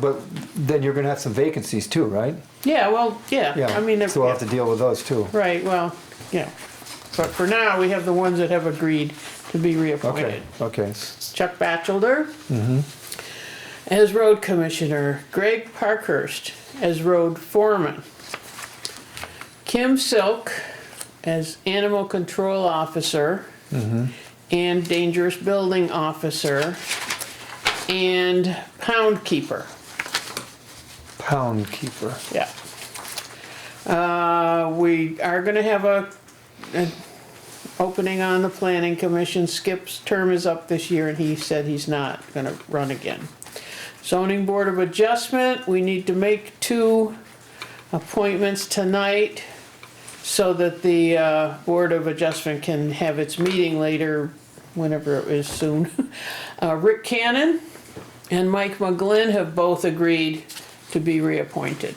but then you're gonna have some vacancies too, right? Yeah, well, yeah, Yeah. I mean, if- So we'll have to deal with those too. right, well, yeah. But for now, we have the ones that have agreed to be Okay, Mm-hmm. reappointed. okay. Chuck Batchelder as road commissioner, Greg Parkhurst as road foreman, Kim Silk as animal control officer Mm-hmm. and dangerous building officer, and pound keeper. Pound keeper. Yeah. Uh, we are gonna have a, an opening on the planning commission. Skip's term is up this year and he said he's not gonna run again. Zoning Board of Adjustment, we need to make two appointments tonight so that the, uh, Board of Adjustment can have its meeting later, whenever it is soon. Uh, Rick Cannon and Mike McGlynn have both agreed to be reappointed.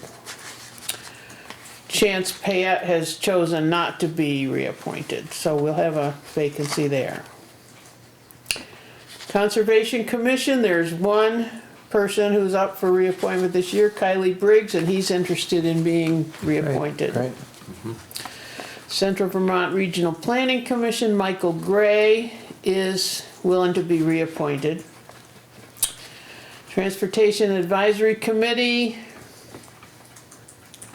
Chance Payette has chosen not to be reappointed, so we'll have a vacancy there. Conservation Commission, there's one person who's up for reappointment this year, Kylie Briggs, and he's interested in being Right, reappointed. Right, Oh, Central Vermont Regional Planning Commission, Michael Gray is willing to be reappointed. Transportation Advisory Committee,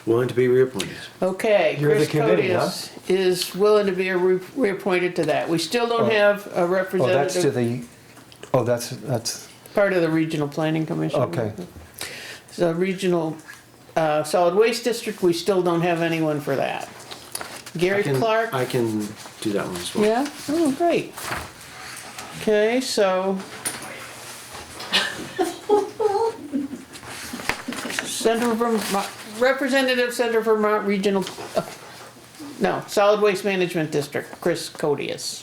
Willing to be reappointed. Okay, You're the Chris committee, Codius is willing to be re- reappointed to that. We still Oh. don't have a oh, that's to representative, the, oh, that's, that's, part of the Regional Planning Commission. okay, The Regional uh, Solid Waste District, we still don't have anyone for that. I Gary can- Clark, I can do that one as well. yeah, oh, great. Okay, so. Center Vermont, Representative Center Vermont Regional, uh, no, Solid Waste Management District, Chris Codius.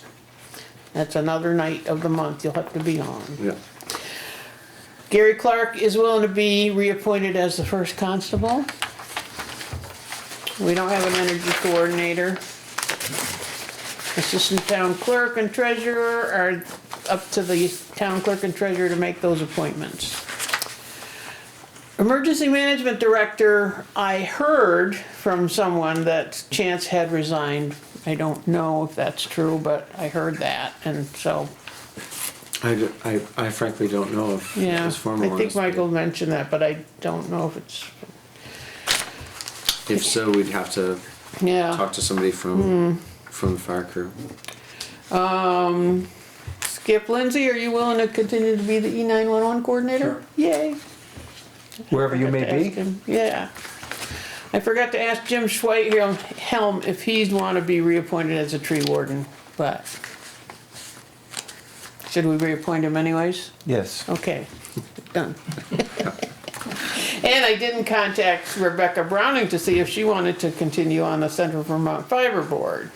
That's another night of the month you'll have to be on. Yeah. Gary Clark is willing to be reappointed as the first constable. We don't have an energy coordinator. Assistant town clerk and treasurer are up to the town clerk and treasurer to make those appointments. Emergency management director, I heard from someone that Chance had resigned. I don't know if that's true, but I heard that, and so I, d- I- I frankly don't know if yeah, it's I formalized. think Michael mentioned that, but I don't know if it's, If so, we'd have to yeah. Hmm. talk to somebody from, from the fire crew. Skip Lindsay, are you willing to continue to be the E nine one one coordinator? Yay. wherever you Forgot to may ask be. him. Yeah. I forgot to ask Jim Schweighelm Helm if he's wanna be reappointed as a tree warden, but. Should we reappoint him anyways? Yes. Okay, done. And I didn't contact Rebecca Browning to see if she wanted to continue on the Central Vermont Fiber Board.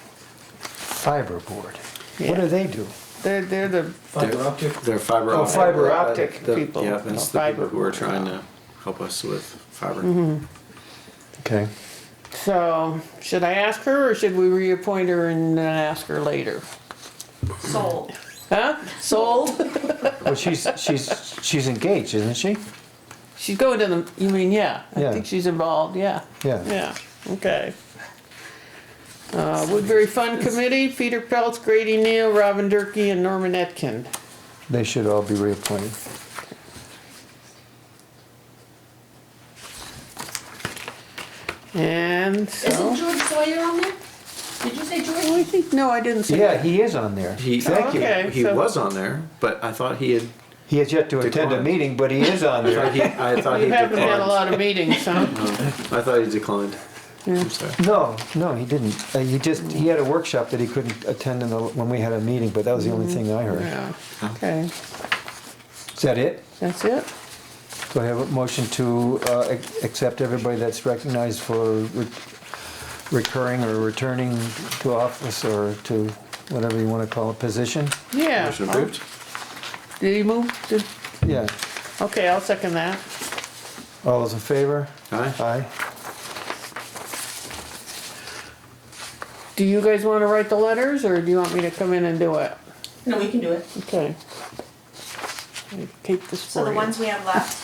Fiberboard. What Yeah. do they do? They're, they're the Fiber optic? They're fiber optic. fiber optic The- people. Yeah, that's the Fiber people who are people. Mm-hmm. trying to help us with fiber. Okay. So, should I ask her or should we reappoint her and then ask her later? sold. Huh? Sold? Well, she's, she's, she's engaged, isn't she? She's going to the, you mean, yeah, I Yeah. think she's involved, yeah. Yeah. Yeah, okay. Uh, Woodbury Fund Committee, Peter Peltz, Grady Neal, Robin Durkey and Norman Etkin. They should all be reappointed. And Isn't so, George Sawyer on there? Did you say George? Oh, I think, no, I didn't see Yeah, that. he is on there. He, Thank you. Oh, Okay, he so- was on there, but I thought he had, He has yet to attend a Declined. meeting, but he is on I there. thought he, I thought he We haven't had a declined. lot of meetings, huh? I thought he declined. I'm sorry. No, no, he didn't. Uh, He just, he had a workshop that he couldn't attend in the, when we had a meeting, but that was the only thing I heard. Yeah, okay, Is that it? that's it? Do I have a motion to uh, ac- accept everybody that's recognized for re- recurring or returning to office or to whatever you want to call it, position? Yeah. Motion approved. Did you move? Did- Yeah. Okay, I'll second that. All those in favor? Aye. Aye. Do you guys wanna write the letters, or do you want me to come in and do it? No, we can do it. Okay. Let me Take this So for the you. ones we have left,